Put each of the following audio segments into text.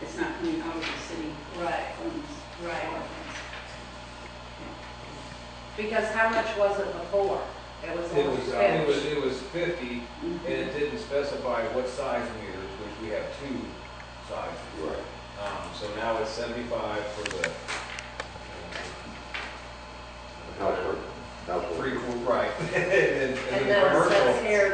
coming out of the city Right, funds. right. Because how much was it before? It was It only was, uh, it was, fifty. it was fifty, and it didn't specify what size meters, which we have two sizes. Right. Um, so now it's seventy-five for the, Housework. uh, Housework. three, quarter right, and then, And and then it then says commercial. here,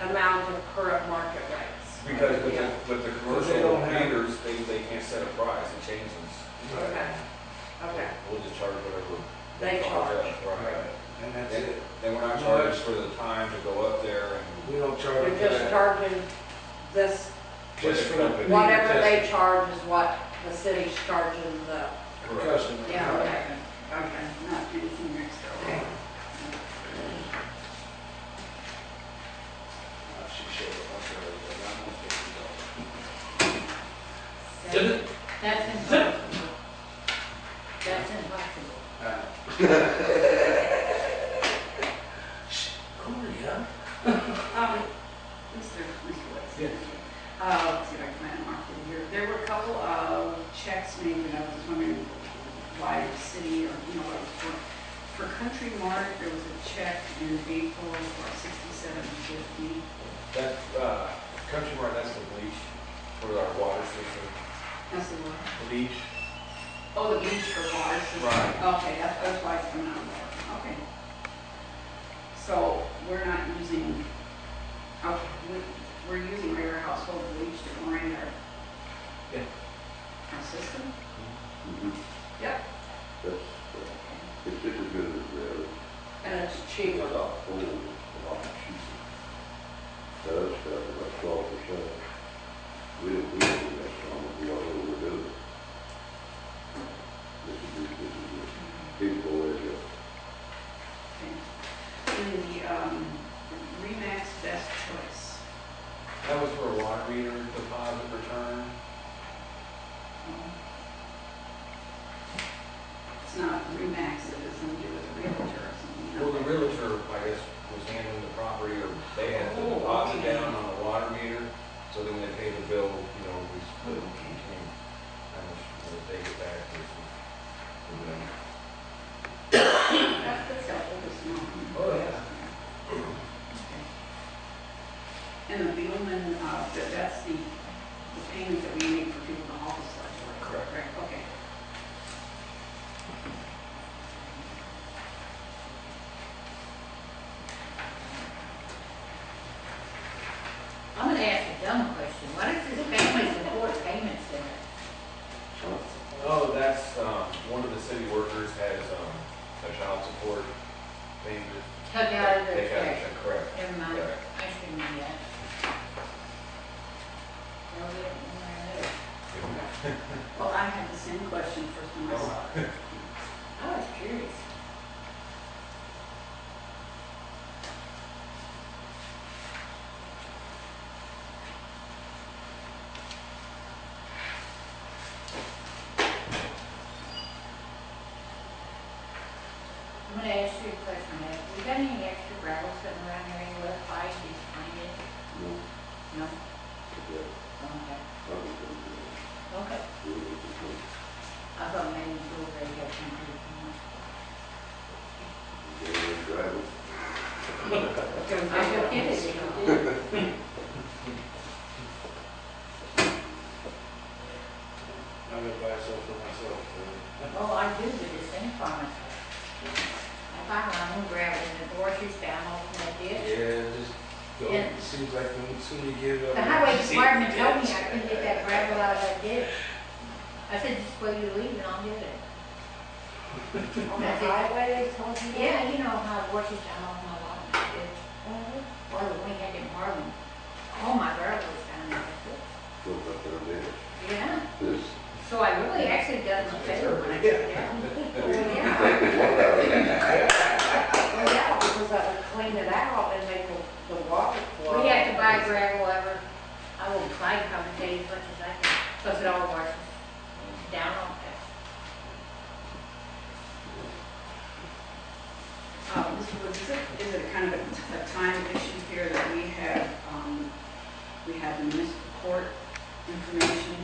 amount of current market rates. Because with the, Yeah. with the They commercial don't have- meters, they, they can't set a price and change them. Okay, okay, We'll just charge whatever. They charge. Right. And that's Then, it. then we're not No, charged it's- for the time to go up there and. We don't charge you're for just that. charging this, Just for the- Company. whatever they charge is what the city's charging the, Correct. Customer. yeah, okay, okay. And Not anything extra. Okay. Uh, She showed up, I'm sorry, but I'm not fifty dollars. That's impossible. That's impossible. Uh, Um, Mr. Mr. West. Yes. Uh, let's see if I can find a mark in here. There were a couple of checks made, and I was just wondering why the city or, you know, what it was for. For Country Mart, there was a check in April for sixty-seven fifty. That, uh, Country Mart, that's the bleach for our water system. That's the one. Bleach? Oh, the beach for water system. Right. Okay, that's, that's why it's coming out of there, okay. So we're not using, uh, we, we're using regular household bleach to grind our, Yeah. our system? Mhm. Yep. That's, uh, it's just as good as the other. And it's It's cheaper. a lot older, a lot cheaper. That other stuff is about twelve percent. We don't, we don't do that strong, we all overdo it. This is, just- this is just people way to go. Okay. In the, um, Remax Best Choice. That was for a water meter deposit return. um, It's not Remax, it is something to do with the realtor or something. Well, the realtor, I guess, was handling the property or they had the deposit down on the water meter. So then when they pay the bill, you know, we split it between how much we'll take it back versus. That's that's helpful to know. Oh, yeah. And the Beelman, uh, that- that's the, the payment that we make for people in the office, like, right? Correct. Right, okay. I'm gonna ask a dumb question. What is this family support payment center? Huh? Oh, that's, um, one of the city workers has, um, a child support payment. Took out of the They got it, check. correct. Never mind. Uh-huh. Correct. I shouldn't do that. Well, we don't want to- Well, I had the same question first time I saw it. I was curious. I'm gonna ask you a question, Ed. We got any extra gravel sitting around here anywhere, five, six, nine, eight? No, No? okay, Okay. I'm just gonna do it. Okay. We're gonna do it. I thought maybe you were ready to get some food. Get in and drive it. I don't get it, you know. I'm gonna buy some for myself, uh, Well, I do, but it's in farmers. I find my own gravel in the gorges down off in that ditch. yeah, just go. Yeah. It seems like when, soon you give it up. The highway department told me I couldn't get that gravel out of that ditch. I said, just wait till you leave and I'll get it. On the highway, they told you? that? Yeah, you know how gorges down off my lot in that ditch. Well, we had it in Harlem. All my gravel was down in that ditch. Go up there and do it. Yeah, This, so I really actually got my favor when I got down. Well, yeah. take the water out of it. Well, yeah, because I would clean it out and make the- the water flow. We have to buy gravel ever, I will buy probably day as much as I can, plus it all washes down on that. Uh, Mr. Woods, is it, is it kind of a t- a time issue here that we have, um, we have the municipal court information